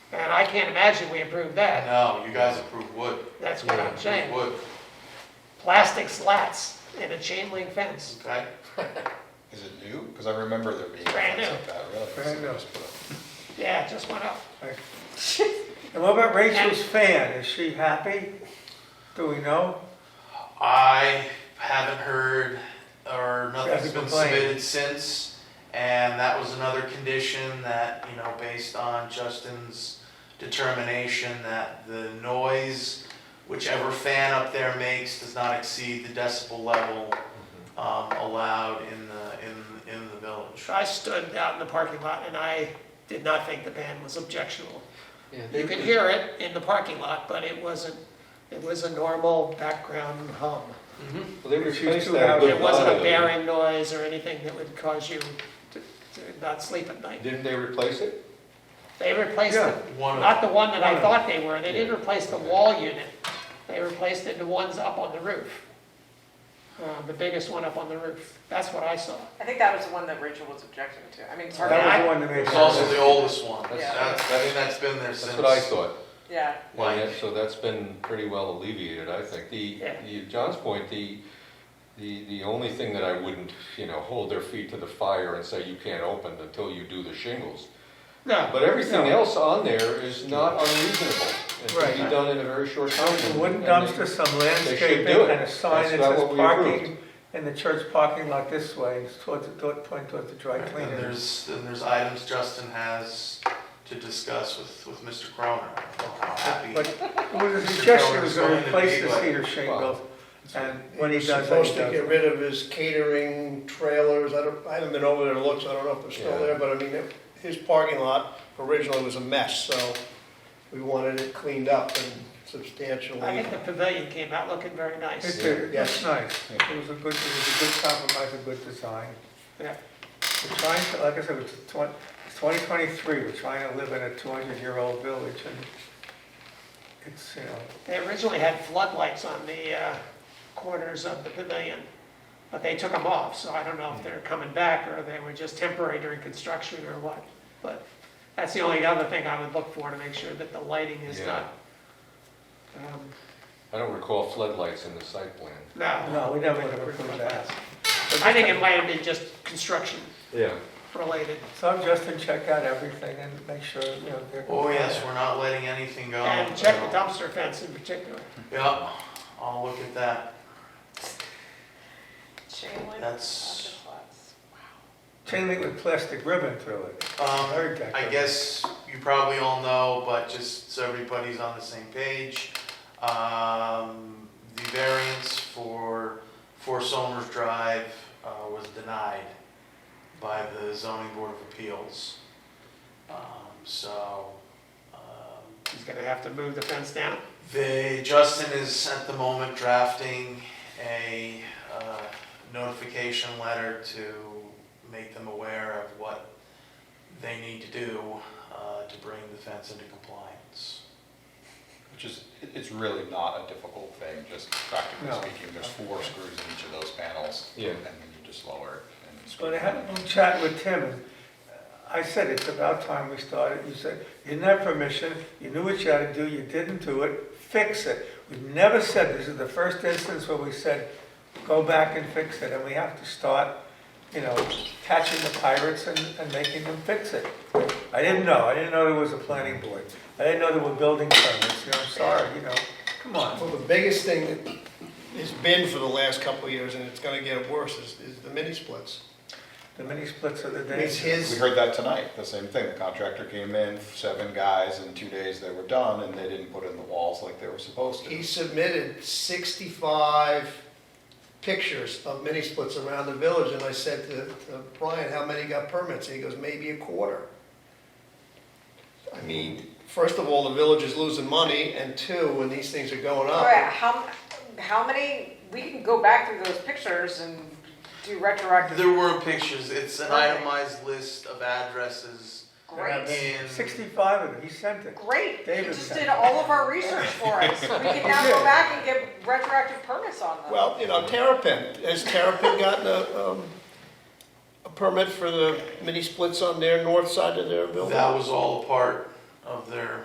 And I can't imagine we improved that. No, you guys approved wood. That's what I'm Approved saying. Wood, Plastic slats and a chain link fence. okay? Is it new? Because I remember there being Brand things new. like that, really. Brand So new. just put a- Yeah, it just went up. And what about Rachel's fan? Is she happy? Do we know? I haven't heard, or nothing's Traffic been complaint. submitted since, and that was another condition that, you know, based on Justin's determination that the noise, whichever fan up there makes, does not exceed the decibel level, Mm-hmm. um, allowed in the, in, in the village. I stood out in the parking lot and I did not think the band was objectionable. You could hear it in the parking lot, but it wasn't, it was a normal background hum. Well, they If you replaced two that. have- with It wasn't a audio. bearing noise or anything that would cause you to to not sleep at night. Didn't they replace it? They replaced it, One of not the one that I One of thought they were, they didn't replace the wall unit. They replaced it to ones up on the roof. Uh, The biggest one up on the roof, that's what I saw. I think that was the one that Rachel was objecting to. I mean, it's hard. That I- was the one that made. It's also the oldest one. That's- That's, I think that's been there since. That's what I thought. Yeah. And Like- that- so that's been pretty well alleviated, I think. The, Yeah. the- John's point, the, the, the only thing that I wouldn't, you know, hold their feet to the fire and say you can't open until you do the shingles. No, But everything No. else on there is not unreasonable. It can be Right. done in a very short time. A Oh, Wooden And they- dumpster, some landscaping, and a That's sign that about what says we parking in the church parking lot this way, it's towards, toward- pointing towards the dry And cleaner. there's, and there's items Justin has to discuss with, with Mr. Croner. I'm happy. But it was a suggestion, he was gonna replace this heater shingle, and when he He's does that, supposed he to does. get it. rid of his catering trailers, I don't, I haven't been over there to look, so I don't know if they're Yeah. still there, but I mean, it- his parking lot originally was a mess, so we wanted it cleaned up and I substantially. think the pavilion came out looking very It nice. did, that's Yes. nice, it was a good, it was a good compromise, a good design. Yeah. We're trying to, like I said, it's twenty, it's twenty twenty-three, we're trying to live in a two hundred year old village, and it's, you know, They originally had floodlights on the uh, corners of the pavilion, but they took them off, so I don't know if they're coming back or they were just temporary during construction or what. But that's the only other thing I would look for, to make sure that the lighting is Yeah. not, um, I don't recall floodlights in the site plan. no. no, we never would have approved that. I think it might have been just construction Yeah. related. So I'm just to check out everything and make sure, you know, they're. Oh, yes, we're not letting anything go. And check the dumpster fence in particular. Yep, I'll look at that. Chain link. That's, Chain link with plastic ribbon through it. um, Very decorative. I guess you probably all know, but just so everybody's on the same page, um, the variance for, for Somers Drive, uh, was denied by the zoning board of appeals. Um, so, um, He's gonna have to move the fence down. They, Justin is at the moment drafting a uh, notification letter to make them aware of what they need to do uh, to bring the fence into compliance. Which is, it- it's really not a difficult thing, just practically No. speaking, there's four screws in each of those panels. Yeah. And then you just lower it and screw But I it had a little chat with Tim, and I said, it's about time we started. You said, you didn't have permission, you knew what you had to do, you didn't do it, fix it. We've never said, this is the first instance where we said, go back and fix it, and we have to start, you know, catching the pirates and, and making them fix it. I didn't know, I didn't know there was a planning board, I didn't know there were building permits, you know, I'm sorry, you know, come on. Well, the biggest thing that has been for the last couple of years, and it's gonna get worse, is, is the mini splits. The mini splits of the day. It's We his, heard that tonight, the same thing, the contractor came in, seven guys, in two days they were done, and they didn't put in the walls like they were supposed he to. submitted sixty-five pictures of mini splits around the village, and I said to, to Brian, how many got permits? And he goes, maybe a quarter. I mean, first of all, the village is losing money, and two, when these things are Oh. going All right, up, how, how many, we can go back through those pictures and do retroactive. There were pictures, it's an itemized list of addresses Great, in. Sixty-five of them, he sent it. great. You David just said. did all of our research for us. We can now go back and get retroactive permits on them. well, you know, Terrapin, has Terrapin gotten a, um, a permit for the mini splits on their north side of their building? That was all a part of their